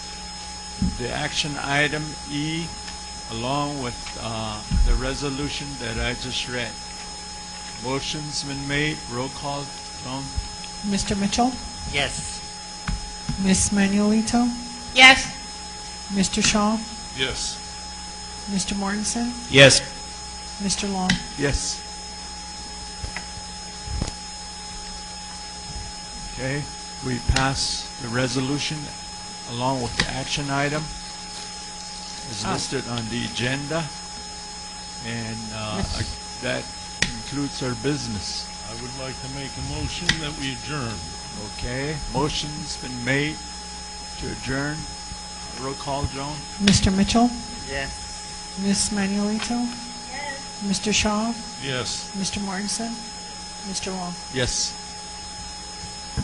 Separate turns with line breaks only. the action item E along with uh, the resolution that I just read. Motion's been made, roll call, Tom?
Mr. Mitchell?
Yes.
Ms. Manuelito?
Yes.
Mr. Shaw?
Yes.
Mr. Mortensen?
Yes.
Mr. Long?
Yes. Okay, we pass the resolution along with the action item as listed on the agenda. And uh,
Yes.
ag- that concludes our business,
I would like to make a motion that we adjourn.
okay? Motion's been made to adjourn. Roll call, Joan?
Mr. Mitchell?
Yes.
Ms. Manuelito? Mr. Shaw?
Yes.
Mr. Mortensen? Mr. Long?
Yes.